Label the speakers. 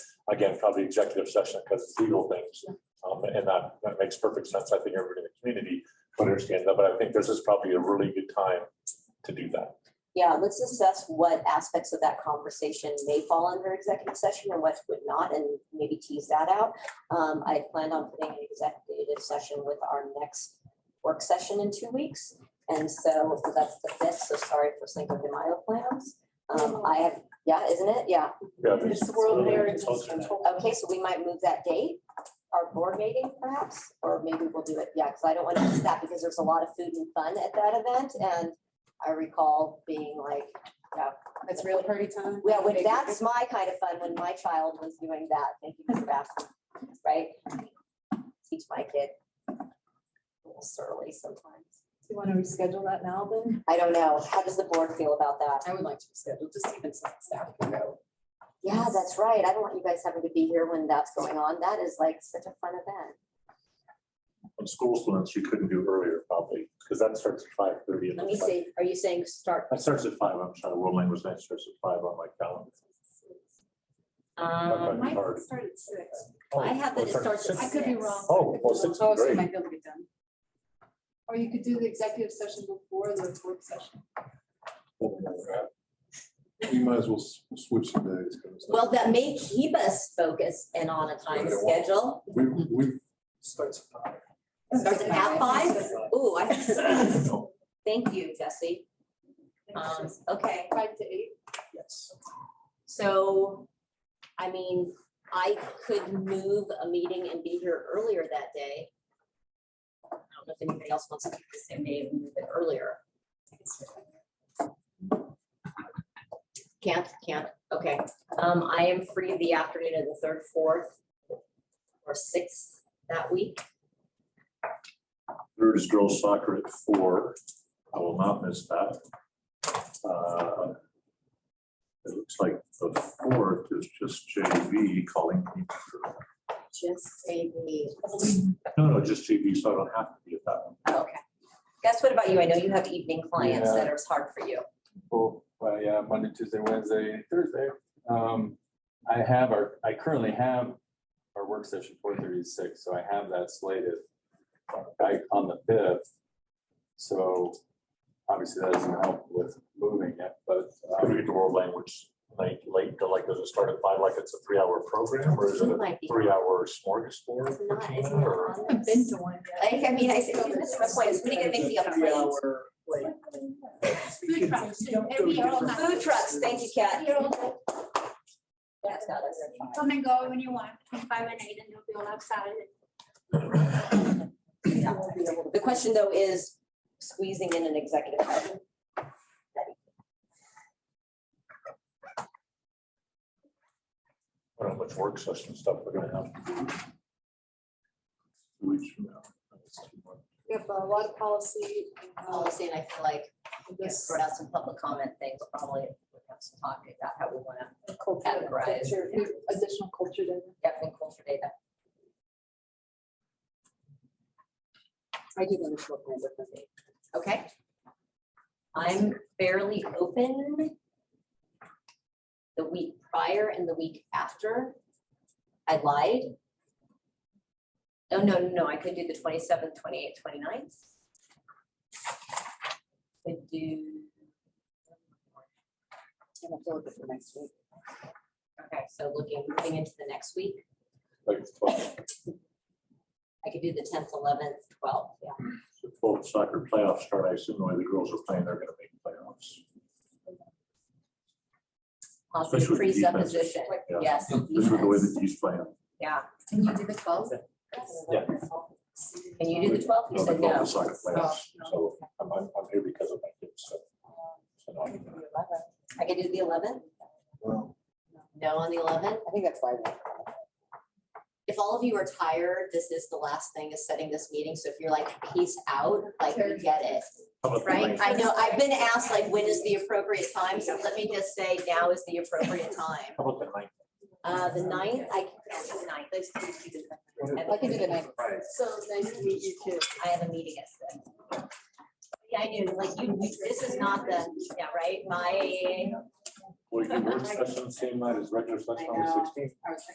Speaker 1: again, probably executive session because it's legal things. Um, and that, that makes perfect sense. I think everybody in the community would understand that, but I think this is probably a really good time to do that.
Speaker 2: Yeah, let's assess what aspects of that conversation may fall under executive session and what would not, and maybe tease that out. Um, I planned on putting an executive session with our next work session in two weeks. And so that's the fifth, so sorry for Cinco de Mayo plans. Um, I have, yeah, isn't it? Yeah.
Speaker 1: Yeah, there's-
Speaker 3: It's the World Heritage Control.
Speaker 2: Okay, so we might move that date, our board meeting perhaps, or maybe we'll do it, yeah, because I don't want to miss that because there's a lot of food and fun at that event. And I recall being like,
Speaker 3: It's real party time.
Speaker 2: Well, when that's my kind of fun, when my child was doing that, thank you for asking, right? Teach my kid. A little Surly sometimes.
Speaker 3: Do you want to reschedule that now then?
Speaker 2: I don't know. How does the board feel about that?
Speaker 3: I would like to reschedule, just even so that staff can go.
Speaker 2: Yeah, that's right. I don't want you guys having to be here when that's going on. That is like such a fun event.
Speaker 1: On school students, you couldn't do earlier probably, because that starts at five thirty.
Speaker 2: Let me see. Are you saying start?
Speaker 1: That starts at five. I'm sorry, world language night starts at five on my calendar.
Speaker 2: Um,
Speaker 1: Mine's hard.
Speaker 3: start at six.
Speaker 2: I have that it
Speaker 1: Oh,
Speaker 2: starts at
Speaker 1: six.
Speaker 3: I could be wrong.
Speaker 1: Oh, well, six is
Speaker 3: Oh, so you
Speaker 1: great.
Speaker 3: might be able to get done. Or you could do the executive session before the work session.
Speaker 4: We might as well s- switch the days. 'cause
Speaker 2: well, that may keep us focused and on a time
Speaker 4: But it won't.
Speaker 2: schedule.
Speaker 4: We, we. Starts.
Speaker 2: Starts at five? Ooh, I have to see.
Speaker 1: No,
Speaker 2: Thank you, Jesse. Um, okay.
Speaker 3: Five to eight.
Speaker 4: Yes.
Speaker 2: So, I mean, I could move a meeting and be here earlier that day. I don't know if anybody else wants to do the same day and move it earlier. Can't, can't, okay. Um, I am free the afternoon of the third, fourth, or sixth that week.
Speaker 1: Third is girls soccer at four. I will not miss that. Uh, It looks like the fourth is just JV calling. me for-
Speaker 2: Just say the.
Speaker 1: No, no, just JV, so I don't have to be at that one.
Speaker 2: Okay. Guess what about you? I know you have evening clients that are hard for you.
Speaker 5: Well, well, yeah, Monday, Tuesday, Wednesday, Thursday. Um, I have our, I currently have our work session four thirty to six, so I have that slated I on the fifth. So obviously that doesn't help with moving it, but
Speaker 1: How do we get the world language uh, like late, to like, does it start at five, like it's a three-hour program, or is it
Speaker 2: Zoom
Speaker 1: a
Speaker 2: might be-
Speaker 1: three-hour smorgasbord?
Speaker 2: It's not,
Speaker 1: for
Speaker 2: it's
Speaker 1: Tina,
Speaker 2: not
Speaker 1: or-
Speaker 2: on
Speaker 3: I've
Speaker 2: this.
Speaker 3: been to one.
Speaker 2: I, I mean, I said, this is my point, is gonna make me a plate.
Speaker 3: Food trucks, too. And we all have-
Speaker 2: Food trucks, thank you, Kat. That's not us.
Speaker 6: Come and go when you want, between five and eight, and you'll be all outside.
Speaker 2: The question though is squeezing in an executive session.
Speaker 1: I don't know how much work session stuff we're gonna have. Two weeks from now. That's too much.
Speaker 3: We have a lot of policy. uh,
Speaker 2: Policy, and I feel like we have
Speaker 3: this-
Speaker 2: sort out some public comment things, probably we have some talk about how we wanna,
Speaker 3: culture-
Speaker 2: Categorize.
Speaker 3: culture, Additional culture data.
Speaker 2: definitely culture data.
Speaker 3: I do want to short plan with them.
Speaker 2: Okay. I'm fairly open the week prior and the week after. I lied. Oh, no, no, no, I could do the 27th, 28th, 29th. Could do. Okay, so looking, moving into the next week,
Speaker 1: Like it's twelve,
Speaker 2: I could do the 10th, 11th, 12th, yeah.
Speaker 1: so twelve soccer playoffs start, I assume the way the girls are playing, they're gonna make playoffs.
Speaker 2: Positive
Speaker 1: Especially with the defenses.
Speaker 2: presupposition,
Speaker 1: Yeah.
Speaker 2: yes.
Speaker 1: This is the way
Speaker 2: defense,
Speaker 1: that he's playing.
Speaker 2: Yeah.
Speaker 3: Can you do the twelve?
Speaker 1: Yeah.
Speaker 2: Can you do the 12th? You
Speaker 1: No, they
Speaker 2: said
Speaker 1: love
Speaker 2: no.
Speaker 1: the soccer playoffs, so I'm, I'm I'm here because of my kids, so. so no, I'm-
Speaker 2: I can do the eleventh?
Speaker 4: Well,
Speaker 2: No on the eleventh? I think that's why. If all of you are tired, this is the last thing is setting this meeting. So if you're like, peace out, like we get it,
Speaker 1: How about the
Speaker 2: right?
Speaker 1: ninth?
Speaker 2: I know, I've been asked like, when is the appropriate time? So let me just say now is the appropriate time.
Speaker 1: How about the ninth?
Speaker 2: Uh, the ninth, I can do the ninth. Let's do the ninth.
Speaker 3: I can do the ninth. So nice to meet you too.
Speaker 2: I have a meeting at six. Yeah, I knew, like you, this is not the, yeah, right? My
Speaker 1: Will your work session same night as regular session on the sixteenth?